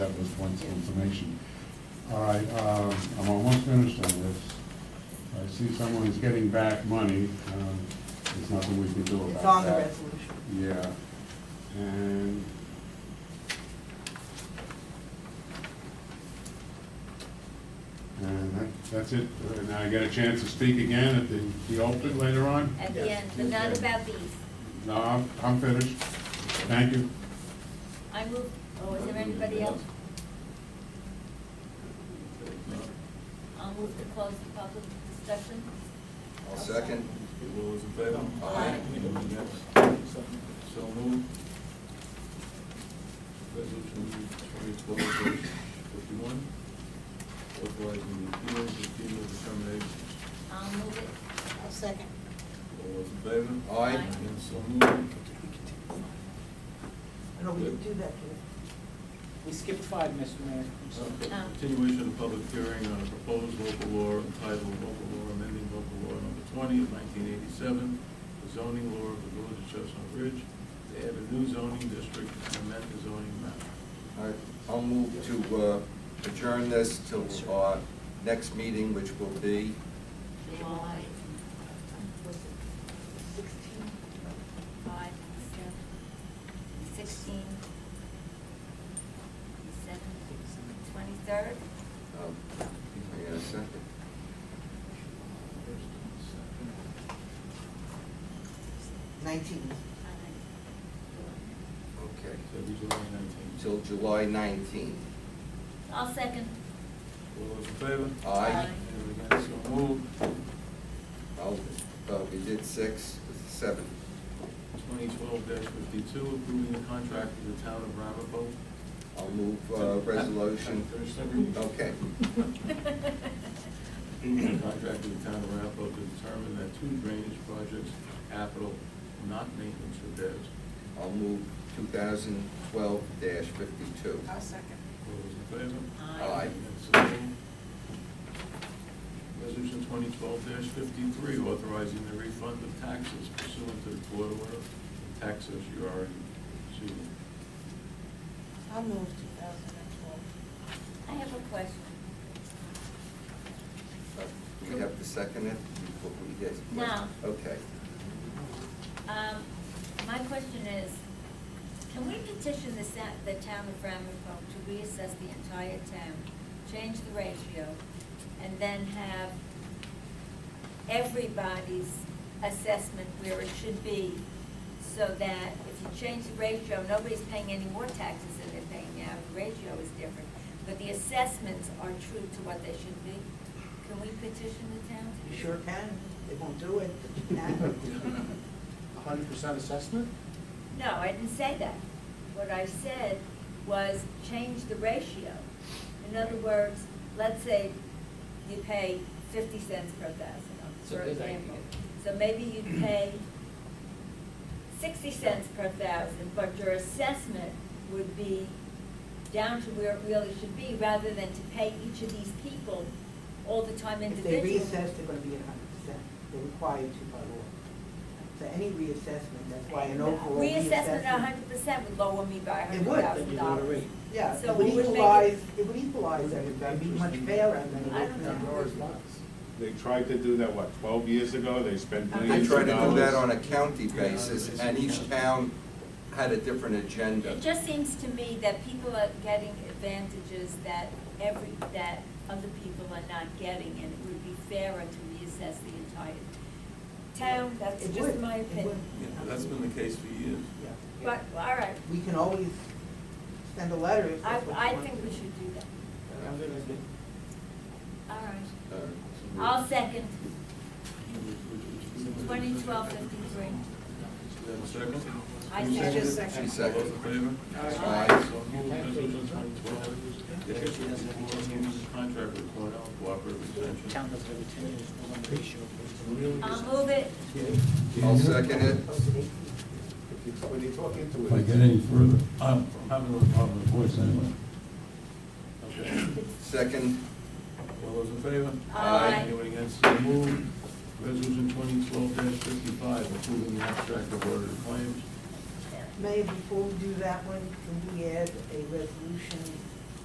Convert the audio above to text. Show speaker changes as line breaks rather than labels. wants information. All right, uh, I'm almost finished on this. I see someone is getting back money. Um, There's nothing we can do about that.
It's on the resolution.
Yeah, and. And that, that's it, Uh, now I get a chance to speak again at the, the open later on?
at the end, but not about these.
No, I'm, I'm finished, thank you.
I move, oh, is there anybody else? I'll move to close the public discussion.
I'll second.
All those in favor?
Aye.
Anyone against? So moved. Resolution twenty twelve fifty-one, authorizing the appeal of FEMA determinations.
I'll move it.
I'll second.
All those in favor?
Aye.
And so moved.
I know we can do that, kid.
We skipped five, Mr. Mayor. I'm sorry.
Oh.
Um.
Continuation of public hearing on a proposed local law entitled Local Law Amending Local Law Number Twenty of nineteen eighty-seven, the zoning law of the Village of Chestnut Ridge, to add a new zoning district and amend the zoning map.
All right, I'll move to uh, adjourn this till our next meeting, which will be,
July, was it sixteen, five, seven, sixteen, seven, twenty-third?
um, hang on a second.
First and second.
Nineteen.
Okay,
That'd be July nineteenth.
till July 19th.
I'll second.
All those in favor?
Aye.
Anyone against? So moved.
I'll, uh, we did six, seven.
Twenty twelve fifty-two, approving the contract with the town of Ramapo.
I'll move uh, resolution.
Finish that reading.
Okay.
Contract with the town of Arapahoe to determine that two drainage projects, capital, not maintenance repairs.
I'll move 2012-52.
second.
All those in favor?
Aye.
So moved. Resolution twenty twelve fifty-three, authorizing the refund of taxes pursuant to the court order. Taxes you already sued.
I'll move two thousand and twelve.
I have a question.
Uh, Do we have to second it? Before we get-
No.
Okay.
Um, my question is, can we petition the sa- the town of Ramapo to reassess the entire town, change the ratio, and then have everybody's assessment where it should be, so that if you change the ratio, nobody's paying any more taxes than they're paying now, the ratio is different, but the assessments are true to what they should be? Can we petition the town?
You sure can. They won't do it, but you can.
A hundred percent assessment?
No, I didn't say that. What I said was change the ratio. In other words, let's say you pay fifty cents per thousand,
So
for
there's like-
example. So maybe you'd pay sixty cents per thousand, but your assessment would be down to where it really should be, rather than to pay each of these people all the time
If they
individually.
reassess, they're gonna be at hundred percent. They're required to by law. So any reassessment, that's why an overall reassessment.
Reassessment a hundred percent would lower me by a
It
hundred
would,
Then
thousand
you do it
dollars.
already.
Yeah,
So
it would
we would make it-
equalize, it would equalize everybody, be much fairer than it
I
is
don't
now.
know.
They tried to do that, what, twelve years ago, they spent
They
millions
tried
of dollars.
to do that on a county basis, and each town had a different agenda.
It just seems to me that people are getting advantages that every, that other people are not getting, and it would be fairer to reassess the entire town, that's
It
just
would,
my
it
opinion.
Yeah, that's been the case for years.
would, yeah.
But, all right,
We can always send a letter if
I,
that's what you
I
want.
think we should do that,
I'm gonna be-
all right.
Uh,
I'll second twenty twelve fifty-three.
Do you have a second?
I
You
second.
it?
She
All
seconded.
those in favor?
Aye.
So moved. Resolution twenty twelve fifty-four, approving the contract with Cornell Cooperative Extension.
Town does every ten years, we're on the ratio.
I'll move it,
I'll second it.
When you talk into
If I get any further, I'm
I'm having a little problem
of course anyway.
Okay.
Second,
All those in favor?
Aye.
Anyone against, so moved. Resolution twenty twelve fifty-five, approving the abstract of order of claims.
Mayor, before we do that one, can we add a resolution